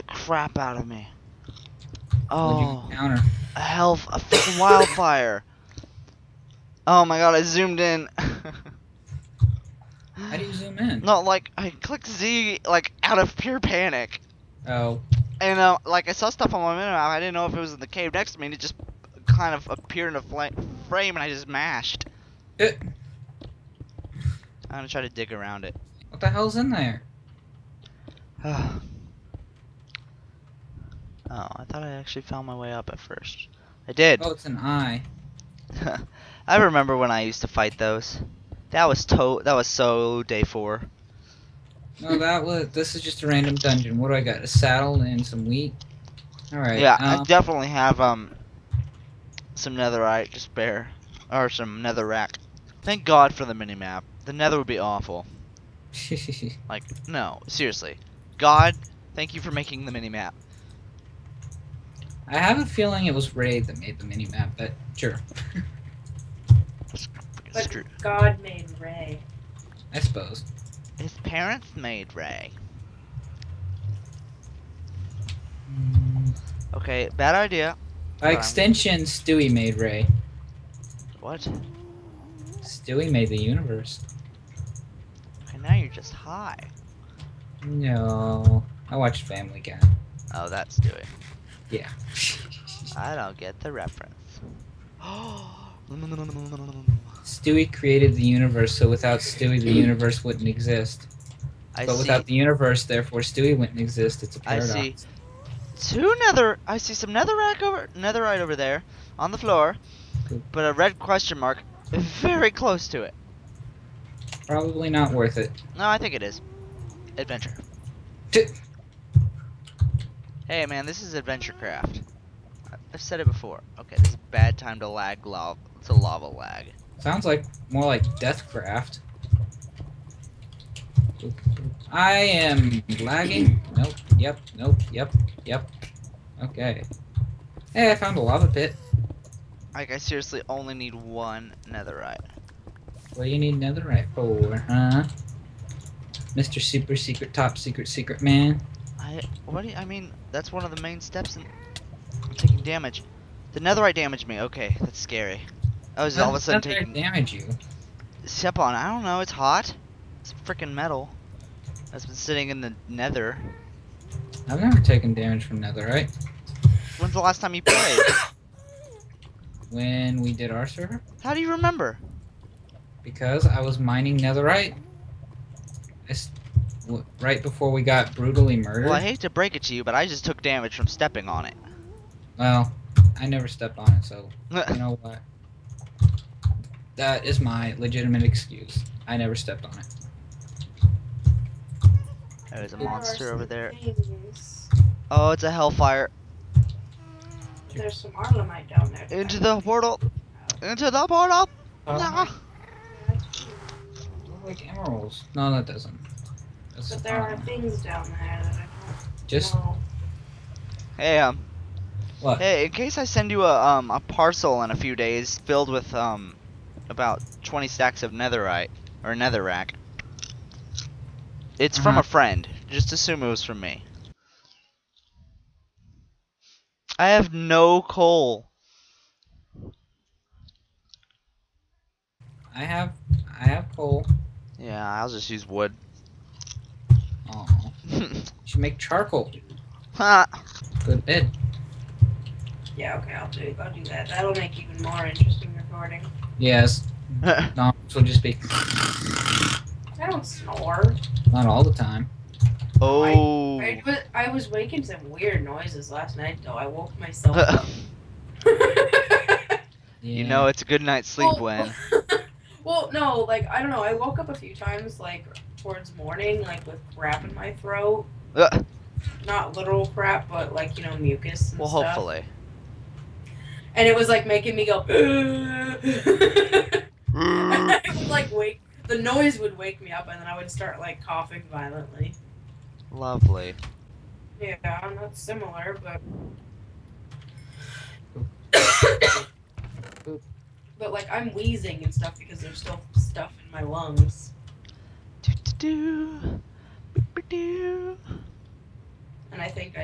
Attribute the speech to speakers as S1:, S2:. S1: crap out of me.
S2: What'd you
S1: Oh,
S2: encounter?
S1: a hell, a fucking wildfire. Oh my god, I zoomed in.
S2: How do you zoom in?
S1: no, like I clicked Z like out of pure panic,
S2: Oh,
S1: and uh, like I saw stuff on my minimap. I didn't know if it was in the cave next to me, and it just kind of appeared in a fla- frame, and I just mashed.
S2: Eh.
S1: I'm gonna try to dig around it.
S2: what the hell's in there?
S1: oh, I thought I actually found my way up at first. I did.
S2: Oh, it's an eye.
S1: I remember when I used to fight those. That was to that was so day four.
S2: No, that was. This is just a random dungeon. What do I got? A saddle and some wheat. All right.
S1: yeah, I
S2: Um,
S1: definitely have um some netherite to spare. Or some nether rack. Thank God for the minimap. The nether would be awful. Like, no, seriously. God, thank you for making the minimap.
S2: I have a feeling it was Ray that made the minimap, but sure,
S1: It's
S3: But
S1: true.
S3: God made Ray.
S2: I suppose.
S1: His parents made Ray.
S2: Mm,
S1: Okay, bad idea.
S2: By
S1: Um,
S2: extension, Stewie made Ray.
S1: What?
S2: Stewie made the universe.
S1: And now you're just high.
S2: No, I watched Family Guy.
S1: Oh, that's doing.
S2: Yeah.
S1: I don't get the reference.
S2: Stewie created the universe, so without Stewie, the universe wouldn't exist.
S1: I
S2: but
S1: see
S2: without the universe, therefore, Stewie wouldn't exist. It's a
S1: I
S2: paradox.
S1: see. two nether. I see some netherrack over netherite over there on the floor, but a red question mark very close to it.
S2: Probably not worth it.
S1: No, I think it is. Adventure.
S2: T-
S1: Hey man, this is adventure craft. I- I've said it before. Okay, this is a bad time to lag lava. To lava lag.
S2: Sounds like more like Deathcraft. I am lagging. Nope. Yep. Nope. Yep. Yep. Okay. Hey, I found a lava pit.
S1: Like I seriously only need one netherite.
S2: What do you need netherite for, huh? Mr. Super Secret Top Secret Secret Man.
S1: I what do you, I mean? That's one of the main steps in I'm taking damage. The netherite damaged me. Okay, that's scary. I was all of a sudden
S2: Netherite
S1: taking
S2: damage you.
S1: step on. I don't know. It's hot. It's freaking metal. That's been sitting in the nether.
S2: I've never taken damage from netherite.
S1: When's the last time you played?
S2: When we did our server,
S1: How do you remember?
S2: because I was mining netherite. I s- w- right before we got brutally murdered.
S1: Well, I hate to break it to you, but I just took damage from stepping on it.
S2: Well, I never stepped on it, so you know what? That is my legitimate excuse. I never stepped on it.
S1: There's a
S3: There are
S1: monster
S3: some
S1: over there.
S3: things.
S1: Oh, it's a hellfire.
S3: There's some Arlemite down there.
S1: Into the portal. Into the portal. Nah.
S2: Uh-huh. Look Uh, like emeralds. No, that doesn't. That's
S3: But there are
S2: fine.
S3: things down there that I
S2: just
S3: don't know.
S1: Hey, um,
S2: what?
S1: Hey, in case I send you a um a parcel in a few days filled with um about 20 stacks of netherite or netherrack. It's from
S2: Uh-huh.
S1: a friend. Just assume it was from me. I have no coal.
S2: I have I have coal.
S1: Yeah, I'll just use wood.
S2: Oh, you should make charcoal.
S1: Ha.
S2: Good bid.
S3: Yeah, okay, I'll do, I'll do that. That'll make even more interesting recording.
S2: Yes. No, this will just be
S3: I don't snore.
S2: not all the time.
S1: oh.
S3: I, was, I was waking some weird noises last night, though. I woke myself up.
S1: you
S2: Yeah.
S1: know it's a good night's sleep
S3: Well-
S1: when
S3: well, no, like I don't know. I woke up a few times, like towards morning, like with crap in my throat.
S1: Ugh.
S3: Not literal crap, but like you know mucus and
S1: well
S3: stuff.
S1: hopefully.
S3: And it was like making me go.
S1: Mm.
S3: I would like wake. The noise would wake me up, and then I would start like coughing violently.
S1: Lovely.
S3: Yeah, not similar, but. but like I'm wheezing and stuff because there's still stuff in my lungs,
S1: Do do do. Boop, boop, do.
S3: and I think